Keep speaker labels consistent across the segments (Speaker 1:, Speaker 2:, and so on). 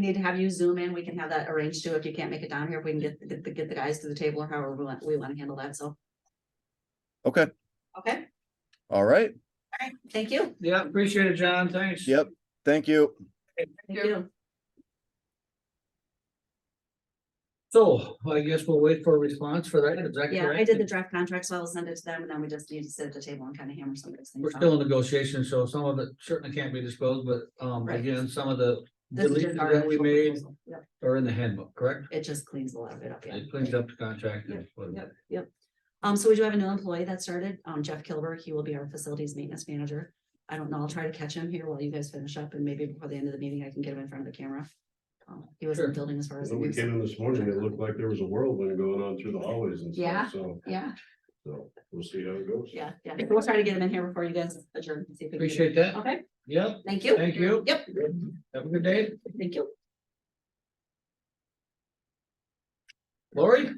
Speaker 1: Need to have you zoom in, we can have that arranged too, if you can't make it down here, if we can get, get, the- get the guys to the table or however we want, we wanna handle that, so,
Speaker 2: Okay,
Speaker 1: okay,
Speaker 2: all right.
Speaker 1: thank you.
Speaker 3: Yeah, appreciate it, John, thanks.
Speaker 2: Yep, thank you.
Speaker 1: Thank you.
Speaker 3: So I guess we'll wait for a response for that, is that
Speaker 1: Yeah,
Speaker 3: correct?
Speaker 1: I did the draft contract, so I'll send it to them, and then we just need to sit at the table and kind of hammer some of those
Speaker 3: We're
Speaker 1: things out.
Speaker 3: still in negotiation, so some of it certainly can't be disclosed, but um
Speaker 1: Right.
Speaker 3: again, some of the
Speaker 1: This is
Speaker 3: deletions
Speaker 1: just our
Speaker 3: that we
Speaker 1: initial
Speaker 3: made
Speaker 1: proposal. Yep,
Speaker 3: are in the handbook, correct?
Speaker 1: It just cleans a lot of it up, yeah.
Speaker 3: It cleans up the contract. and what-
Speaker 1: Yep, yep. Um, so we do have a new employee that started, um, Jeff Kilberg, he will be our facilities maintenance manager. I don't know, I'll try to catch him here while you guys finish up and maybe before the end of the meeting, I can get him in front of the camera. Um, He was in the
Speaker 3: Sure.
Speaker 1: building as far as. I
Speaker 4: When we
Speaker 1: knew, so-
Speaker 4: came in this morning, it looked like there was a whirlwind going on through the hallways and
Speaker 1: Yeah.
Speaker 4: stuff, so,
Speaker 1: Yeah,
Speaker 4: so we'll see how it goes.
Speaker 1: yeah, yeah. So We'll try to get him in here before you guys adjourn. and see if we can get him.
Speaker 3: Appreciate that.
Speaker 1: Okay,
Speaker 3: Yep,
Speaker 1: thank you.
Speaker 3: Thank you.
Speaker 1: Oh. Yep,
Speaker 3: have a good day.
Speaker 1: thank you.
Speaker 3: Lori?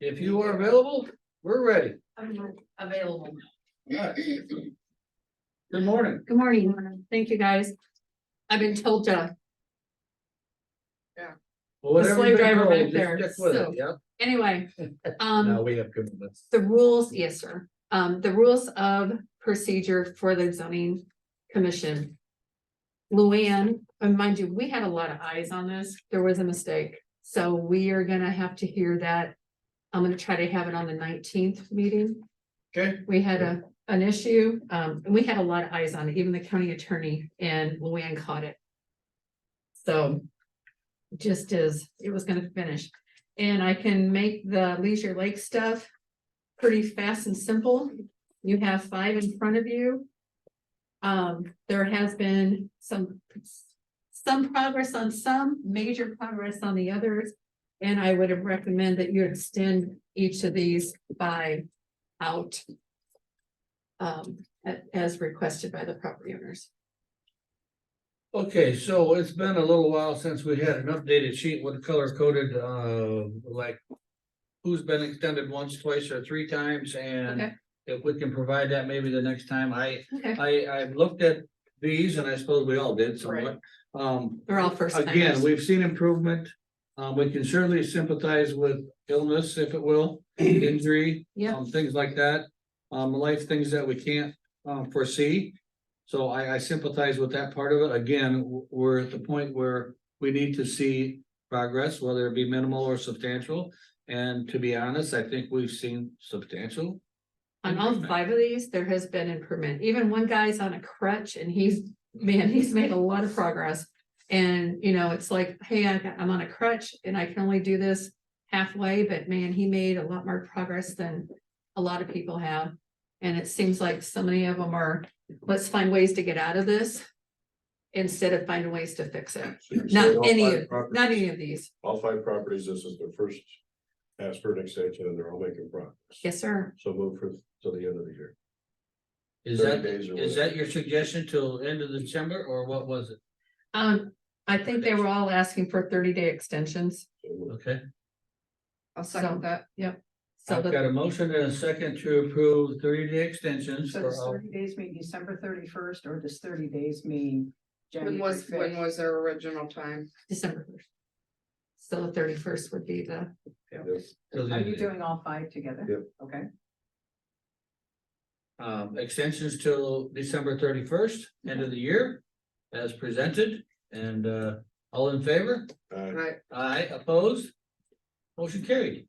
Speaker 3: If you are available, we're ready.
Speaker 5: I'm available.
Speaker 3: Good morning.
Speaker 5: Good morning. Thank you, guys. I've been told to,
Speaker 3: Well, whatever
Speaker 5: slave
Speaker 3: you've been
Speaker 5: driver back
Speaker 3: told, just
Speaker 5: there,
Speaker 3: stick with it,
Speaker 5: so-
Speaker 3: Yep,
Speaker 5: anyway,
Speaker 3: now
Speaker 5: um,
Speaker 3: we have commitments.
Speaker 5: the rules, yes, sir. Um, the rules of procedure for the zoning commission. Luann, and mind you, we had a lot of eyes on this. There was a mistake. So we are gonna have to hear that. I'm gonna try to have it on the nineteenth meeting.
Speaker 3: Okay,
Speaker 5: We had a, an issue, um, and we had a lot of eyes on it, even the county attorney and Luann caught it. So. Just as it was gonna finish, and I can make the Leisure Lake stuff. Pretty fast and simple, you have five in front of you. Um, there has been some. Some progress on some, major progress on the others. And I would recommend that you extend each of these by out um, a- as requested by the property owners.
Speaker 3: okay, so it's been a little while since we had an updated sheet with color coded, uh, like. Who's been extended once, twice, or three times, and
Speaker 5: Okay.
Speaker 3: if we can provide that maybe the next time, I,
Speaker 5: Okay.
Speaker 3: I, I looked at. These, and I suppose we all did somewhat, um,
Speaker 5: They're all first
Speaker 3: again,
Speaker 5: timers.
Speaker 3: we've seen improvement. Um, we can certainly sympathize with illness, if it will, injury.
Speaker 5: Yeah.
Speaker 3: um, Things like that, um, life things that we can't, um, foresee. So I, I sympathize with that part of it. Again, w- we're at the point where we need to see progress, whether it be minimal or substantial. And to be honest, I think we've seen substantial.
Speaker 5: On all five of these, there has been improvement. Even one guy's on a crutch and he's, man, he's made a lot of progress. And, you know, it's like, hey, I got- I'm on a crutch and I can only do this halfway, but man, he made a lot more progress than a lot of people have. And it seems like so many of them are, let's find ways to get out of this instead of finding ways to fix it.
Speaker 4: So you're
Speaker 5: Not
Speaker 4: saying all
Speaker 5: any
Speaker 4: five
Speaker 5: of-
Speaker 4: properties-
Speaker 5: Not any of these.
Speaker 4: All five properties, this is their first ask for an extension and they're all making progress.
Speaker 5: Yes, sir.
Speaker 4: So move for, till the end of the year.
Speaker 3: Is
Speaker 4: 30
Speaker 3: that,
Speaker 4: days or
Speaker 3: is
Speaker 4: whatever.
Speaker 3: that your suggestion till end of December or what was it?
Speaker 5: Um, I think they were all asking for thirty day extensions,
Speaker 4: So moved.
Speaker 3: Okay.
Speaker 6: I'll
Speaker 5: So-
Speaker 6: second that.
Speaker 5: yep. So
Speaker 3: I've
Speaker 5: the,
Speaker 3: got a motion and a second to approve thirty day extensions
Speaker 7: So
Speaker 3: for
Speaker 7: does
Speaker 3: all,
Speaker 7: thirty days mean December thirty-first, or does thirty days mean?
Speaker 6: When
Speaker 7: January
Speaker 6: was, when
Speaker 7: 5th?
Speaker 6: was their original time?
Speaker 5: December first. So the thirty first would be the,
Speaker 4: Yes.
Speaker 3: till the
Speaker 7: Are
Speaker 3: end
Speaker 7: you
Speaker 3: of the-
Speaker 7: doing all five together?
Speaker 4: Yep.
Speaker 7: Okay,
Speaker 3: um, extensions till December thirty first, end of the year. As presented and, uh, all in favor?
Speaker 4: Uh,
Speaker 6: Right,
Speaker 3: Aye, opposed? Motion carried.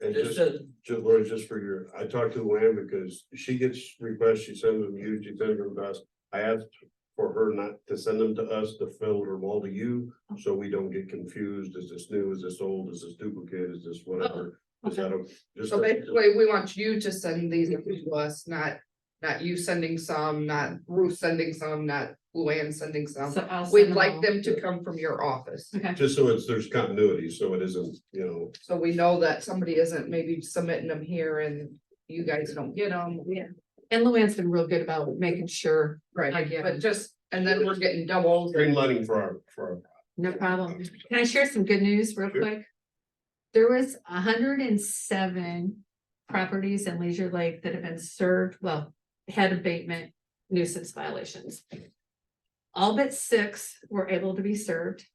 Speaker 4: and
Speaker 3: Just
Speaker 4: just,
Speaker 3: said,
Speaker 4: just, Lori, just for your, I talked to Luann because she gets requests, she sends them to you, she sends them to us. I asked for her not to send them to us, to fill them all to you, so we don't get confused. Is this new? Is this old? Is this duplicate? Is this whatever?
Speaker 5: Oh,
Speaker 4: Is that a? just
Speaker 6: so
Speaker 4: a-
Speaker 6: basically, we want you to send these to us, not, not you sending some, not Ruth sending some, not Luann sending some.
Speaker 5: so I'll.
Speaker 6: We'd
Speaker 5: send
Speaker 6: like
Speaker 5: all.
Speaker 6: them to come from your office,
Speaker 5: Okay,
Speaker 4: Just so it's, there's continuity, so it isn't, you know,
Speaker 6: so we know that somebody isn't maybe submitting them here and you guys don't get them.
Speaker 5: and Luann's been real good about making sure, I
Speaker 6: Right,
Speaker 5: get
Speaker 6: but
Speaker 5: it.
Speaker 6: just, and then we're getting doubles.
Speaker 4: greenlighting for our, for
Speaker 5: no
Speaker 4: our.
Speaker 5: problem. Can I share some good news real
Speaker 4: Sure.
Speaker 5: quick? There was hundred and seven properties in Leisure Lake that have been served, well, had abatement nuisance violations. All but six were able to be served.